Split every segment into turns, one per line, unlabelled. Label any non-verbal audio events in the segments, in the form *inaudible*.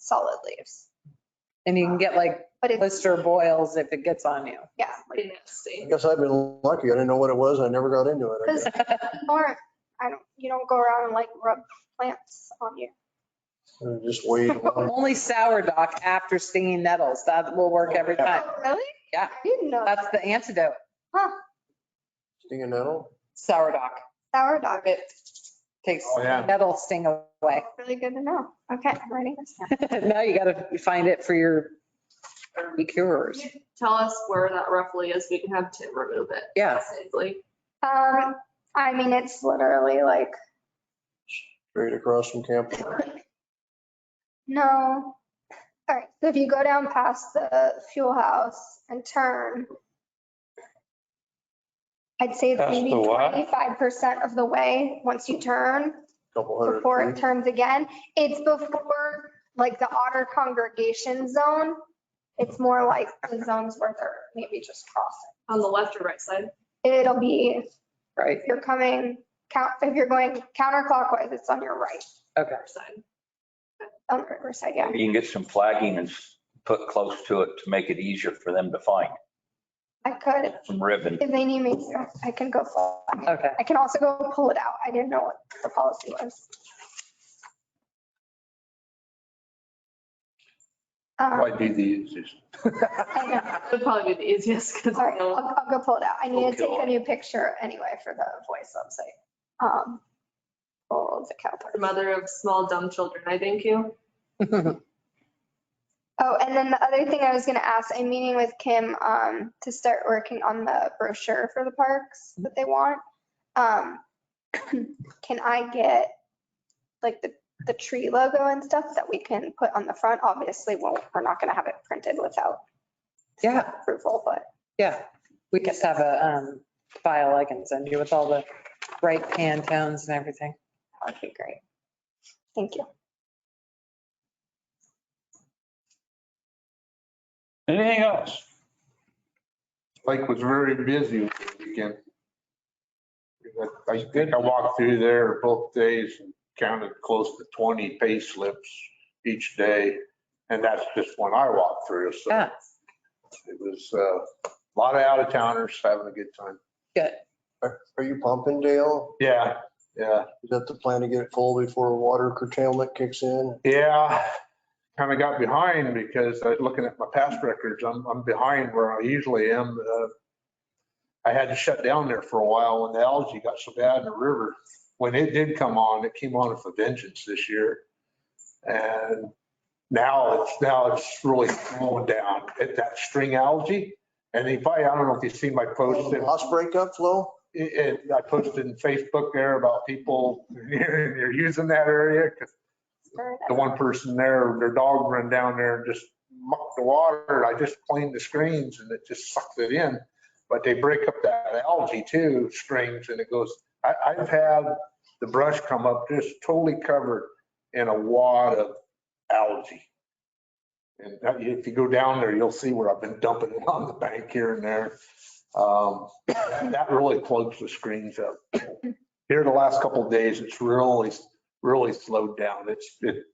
solid leaves.
And you can get like
But it's,
blister boils if it gets on
*laughs*
you.
yeah,
pretty
I
nasty.
guess I've been lucky. I didn't know what it was. I never got into it. I
because
guess.
aren't, I don't, you don't go around and like rub plants on you.
I Just wait. *laughs* along.
Only sourdough after stinging nettles. That will work every time.
Oh, Really?
Yeah.
I didn't know.
That's
that.
the antidote,
Sting a nettle.
sourdough.
Sourdough.
It takes
Oh, yeah.
nettle sting away. *laughs*
Really good to know. Okay, I'm writing this down.
Now you gotta find it for your herb cures.
You Tell us where that roughly is. We can have Tim remove it.
Yeah.
Safely.
Um, I mean, it's literally like,
Straight across from camp.
no. All right, so if you go down past the fuel house and turn, I'd say it's
Past
maybe
the what?
25% of the way once you turn.
Couple hundred.
before it
feet.
turns again. It's before, like, the otter congregation zone. It's more like the zones where they're maybe just crossing.
On the left or right side?
It'll be,
Right,
if you're coming, count if you're going counterclockwise, it's on your right,
okay.
Left side.
on the Riverside, yeah.
You can get some flagging and s- put close to it to make it easier for them to find,
I could,
some ribbon.
if they need me to, I can go fly.
Okay. *laughs*
I can also go pull it out. I didn't know what the policy was. Um,
Might be the easiest.
I know.
Would probably be the easiest because
All right, I'll, I'll go pull it out. I need to
Okay.
take a new picture anyway for the voice website. Um, Oh, the cow
the
part.
mother of small dumb children. I thank you.
Oh, and then the other thing I was gonna ask, I'm meeting with Kim, um, to start working on the brochure for the parks that they want. Um, *clears throat* can I get like the, the tree logo and stuff that we can put on the front? Obviously, well, we're not gonna have it printed without
Yeah,
approval, but
yeah. We just have a um, file I can send you with all the right Pantones and everything.
that would be great. Thank you.
Anything else?
Lake was very busy over the weekend. I think I walked through there both days and counted close to 20 pay slips each day. And that's just when I walked through. So
Yeah,
it was uh, a lot of out of towners having a good time.
good.
Are you pumping, Dale?
Yeah, yeah.
Is that the plan to get it full before water curtailment kicks in?
Yeah, kind of got behind because I was looking at my past records, I'm, I'm behind where I usually am. Uh, I had to shut down there for a while when the algae got so bad in the river. When it did come on, it came on with a vengeance this year. And now it's, now it's really slowing down at that string algae. And if I, I don't know if you've seen my post, it-
Loss breakup flow?
it, I posted in Facebook there about people, *laughs* you're using that area 'cause
Sure.
the one person there, their dog run down there and just mucked the water. and I just cleaned the screens and it just sucked it in. But they break up that algae too, strings, and it goes, I, I've had the brush come up just totally covered in a wad of algae. And that- if you go down there, you'll see where I've been dumping it on the bank here and there. Um, *laughs* That really plugs the screens up. Here the last couple of days, it's really, really slowed down. It's, it,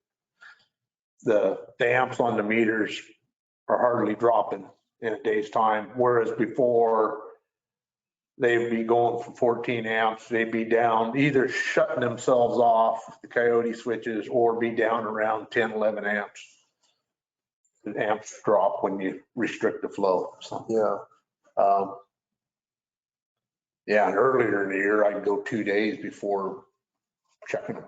the, the amps on the meters are hardly dropping in a day's time, whereas before they'd be going from 14 amps, they'd be down, either shutting themselves off, the coyote switches, or be down around 10, 11 amps. The amps drop when you restrict the flow, so.
Yeah.
Um, Yeah, and earlier in the year, I'd go two days before checking them.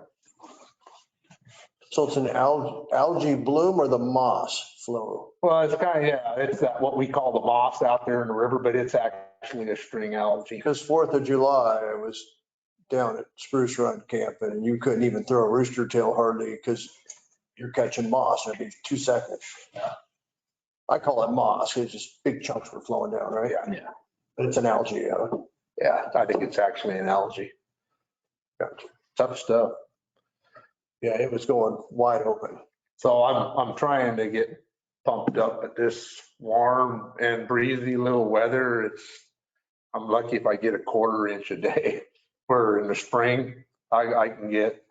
So it's an alg- algae bloom or the moss flow?
Well, it's kind of, yeah, it's that, what we call the moss out there in the river, but it's actually a string algae.
Because Fourth of July, I was down at Spruce Run camping and you couldn't even throw a rooster tail hardly because you're catching moss every two seconds. I call it moss. It's just big chunks were flowing down, right?
Yeah.
Yeah.
But it's an algae, uh, yeah.
Yeah, I think it's actually an algae.
Gotcha.
Tough stuff.
Yeah, it was going wide open.
So I'm, I'm trying to get pumped up at this warm and breezy little weather. It's, I'm lucky if I get a quarter inch a day, *laughs* where in the spring, I, I can get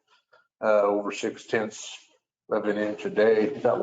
uh, over six tenths of an inch a day.
Is that